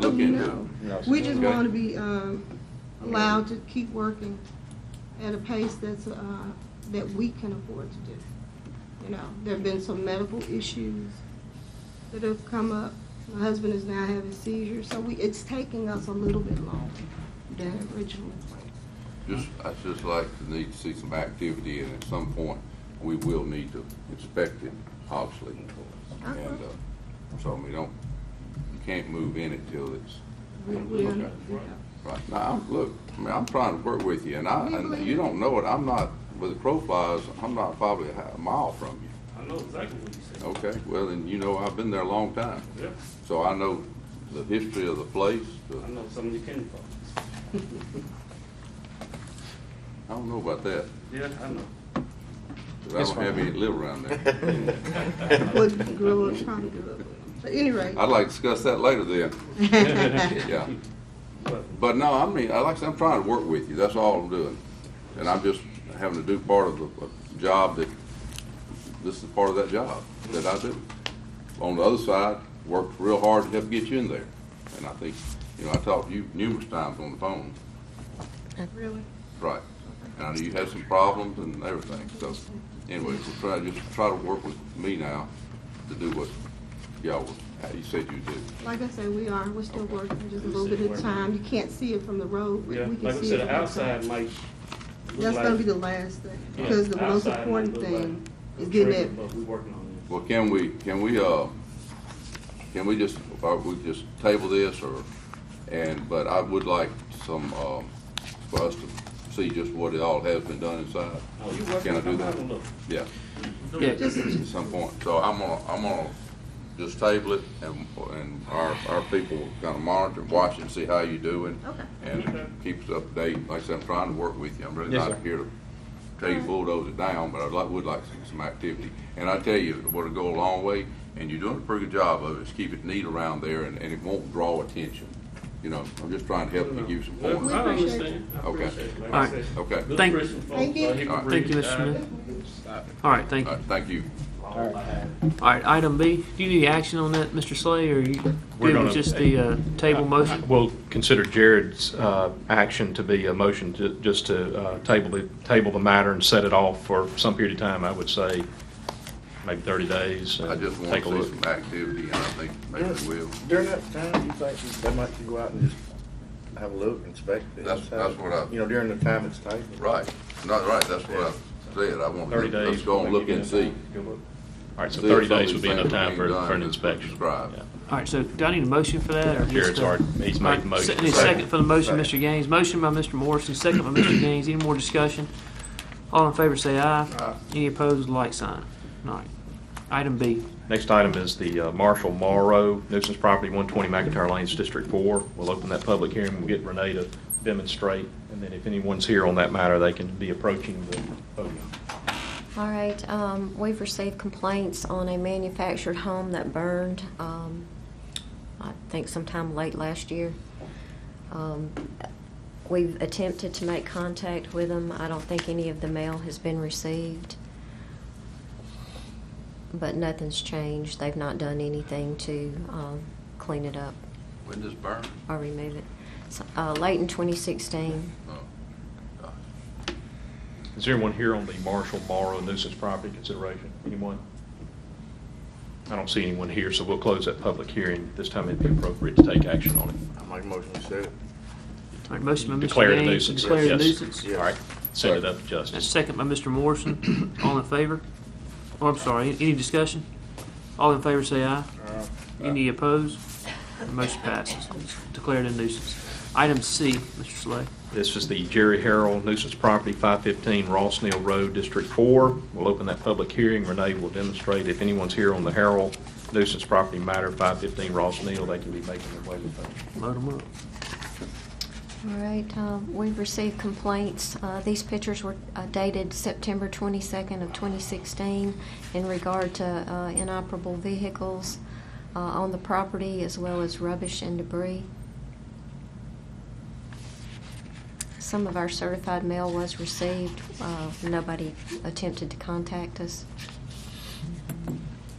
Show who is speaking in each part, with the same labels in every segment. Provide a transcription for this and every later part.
Speaker 1: look into it.
Speaker 2: no.
Speaker 3: No,
Speaker 2: We just
Speaker 1: Okay.
Speaker 2: want to be um, allowed to keep working at a pace that's, uh, that we can afford to do. You know, there've been some medical issues that have come up. My husband is now having seizures, so we, it's taking us a little bit longer than originally planned.
Speaker 1: Just, I just like to need to see some activity, and at some point, we will need to inspect it, obviously.
Speaker 2: Uh-huh.
Speaker 1: And, uh, so we don't, you can't move in it till it's,
Speaker 2: We- we are-
Speaker 1: Okay. right, now, I'm, look, I mean, I'm trying to work with you, and I,
Speaker 2: We
Speaker 1: and
Speaker 2: believe
Speaker 1: you
Speaker 2: you.
Speaker 1: don't know it, I'm not, with the crow flies, I'm not probably a ha- mile from you,
Speaker 4: I know exactly what you said.
Speaker 1: okay? Well, and you know, I've been there a long time,
Speaker 4: Yep,
Speaker 1: so I know the history of the place, the
Speaker 4: I know something you came from.
Speaker 1: I don't know about that,
Speaker 4: Yeah, I know.
Speaker 1: 'cause I
Speaker 3: It's
Speaker 1: don't have
Speaker 3: fine.
Speaker 1: any that live around there.
Speaker 2: Would grow up, trying to grow up. But anyway.
Speaker 1: I'd like to discuss that later then. Yeah,
Speaker 4: But
Speaker 1: but no, I mean, I like, I said, I'm trying to work with you, that's all I'm doing. And I'm just having to do part of the a job that, this is part of that job that I do. On the other side, worked real hard to help get you in there. And I think, you know, I talked to you numerous times on the phone,
Speaker 2: Really?
Speaker 1: right? And I know you had some problems and everything, so anyway, so try, just try to work with me now to do what y'all, how you said you did.
Speaker 2: Like I say, we are, we're still working, just a little bit at a time. You can't see it from the road, but
Speaker 4: Yeah,
Speaker 2: we can
Speaker 4: like I
Speaker 2: see it.
Speaker 4: said,
Speaker 2: from the side.
Speaker 4: outside might look
Speaker 2: That's
Speaker 4: like-
Speaker 2: gonna be the last thing,
Speaker 4: Yeah,
Speaker 2: because the most
Speaker 4: outside might
Speaker 2: important
Speaker 4: look
Speaker 2: thing
Speaker 4: like
Speaker 2: is
Speaker 4: a
Speaker 2: getting
Speaker 4: trailer,
Speaker 2: it.
Speaker 4: But we working on it.
Speaker 1: Well, can we, can we, uh, can we just, or we just table this or, and, but I would like some, um, for us to see just what it all has been done inside.
Speaker 4: Oh, you
Speaker 1: Can I
Speaker 4: working,
Speaker 1: do
Speaker 4: come
Speaker 1: that?
Speaker 4: out and look.
Speaker 1: Yeah,
Speaker 3: Yeah,
Speaker 2: Just,
Speaker 1: at some point. So I'm gonna, I'm gonna just table it and, and our, our people will kind of monitor and watch and see how you doing.
Speaker 2: Okay.
Speaker 1: And keep us updated. Like I said, I'm trying to work with you. I'm really
Speaker 3: Yes,
Speaker 1: not
Speaker 3: sir.
Speaker 1: here to tell you bulldoze it down, but I like, would like some, some activity. And I tell you, what'll go a long way, and you're doing a pretty good job of it, is keep it neat around there and, and it won't draw attention. You know, I'm just trying to help you give you some
Speaker 4: Look,
Speaker 1: points.
Speaker 4: I
Speaker 2: appreciate
Speaker 4: understand. I
Speaker 1: Okay.
Speaker 4: appreciate it. Like I
Speaker 5: All right.
Speaker 4: said,
Speaker 1: Okay.
Speaker 4: good
Speaker 5: Thank-
Speaker 4: Christian folks,
Speaker 2: Thank you.
Speaker 4: uh, he can
Speaker 1: All right.
Speaker 5: Thank you,
Speaker 4: breathe.
Speaker 5: Mr.
Speaker 4: Uh,
Speaker 5: Smith. All right, thank you.
Speaker 1: All right, Uh, thank you.
Speaker 5: All right, item B, do you need action on that, Mr. Slay, or you
Speaker 6: We're
Speaker 5: good
Speaker 6: gonna-
Speaker 5: with just the uh, table motion?
Speaker 6: We'll consider Jared's uh, action to be a motion to- just to uh, table the, table the matter and set it off for some period of time, I would say, maybe 30 days.
Speaker 1: I
Speaker 6: and
Speaker 1: just want
Speaker 6: take a
Speaker 1: to see
Speaker 6: look.
Speaker 1: some activity and I think maybe we will.
Speaker 3: During that time, you think you- they might go out and just have a look, inspect it?
Speaker 1: That's- that's what I-
Speaker 3: You know, during the time it's taken.
Speaker 1: Right, not right, that's what I said, I want,
Speaker 6: 30 days.
Speaker 1: let's go and look and see.
Speaker 6: All right, so
Speaker 1: See if
Speaker 6: 30
Speaker 1: some of
Speaker 6: days
Speaker 1: these
Speaker 6: would be enough
Speaker 1: things are
Speaker 6: time for,
Speaker 1: being done
Speaker 6: for an
Speaker 1: as
Speaker 6: inspection.
Speaker 1: prescribed.
Speaker 6: Yeah.
Speaker 5: All right, so do I need a motion for that, or just?
Speaker 6: Jared's
Speaker 5: uh,
Speaker 6: already- he's made
Speaker 5: all right,
Speaker 6: the motion.
Speaker 5: se- Need a second for the motion, Mr. Gaines. Motion by Mr. Morrissey, second by Mr. Gaines. Any more discussion? All in favor, say aye. Any opposed, like sign. All right. Item B.
Speaker 6: Next item is the uh, Marshall Morrow nuisance property, 120 McIntyre Lanes, District 4. We'll open that public hearing, we'll get Renee to demonstrate, and then if anyone's here on that matter, they can be approaching the podium.
Speaker 7: All right, um, we've received complaints on a manufactured home that burned, um, I think sometime late last year. Um, We've attempted to make contact with them. I don't think any of the mail has been received. But nothing's changed. They've not done anything to, um, clean it up
Speaker 1: When this burn?
Speaker 7: or remove it. So, Uh, late in twenty sixteen.
Speaker 1: Oh, gosh.
Speaker 6: Is there anyone here on the Marshall Morrow nuisance property consideration? Anyone? I don't see anyone here, so we'll close that public hearing. This time it'd be appropriate to take action on it.
Speaker 3: I make a motion to set it.
Speaker 5: All right, motion by Mr. Gaines.
Speaker 6: Declare it a nuisance.
Speaker 5: Declare it a
Speaker 6: Yes.
Speaker 5: nuisance.
Speaker 3: Yeah.
Speaker 6: All right, send it up to justice.
Speaker 5: That's second by Mr. Morrison. All in favor? Oh, I'm sorry, any discussion? All in favor, say aye. Any opposed? Motion passes. Declared a nuisance. Item C, Mr. Slay.
Speaker 6: This is the Jerry Harrell nuisance property, 515 Ross Neal Road, District 4. We'll open that public hearing. Renee will demonstrate. If anyone's here on the Harrell nuisance property matter, 515 Ross Neal, they can be making their way with us.
Speaker 5: Load 'em up.
Speaker 7: All right, um, we've received complaints. Uh, These pictures were uh, dated September 22nd of 2016 in regard to uh, inoperable vehicles uh, on the property as well as rubbish and debris. Some of our certified mail was received. Uh, Nobody attempted to contact us.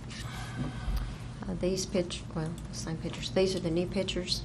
Speaker 7: Uh, These pict, well, same pictures. These are the new pictures.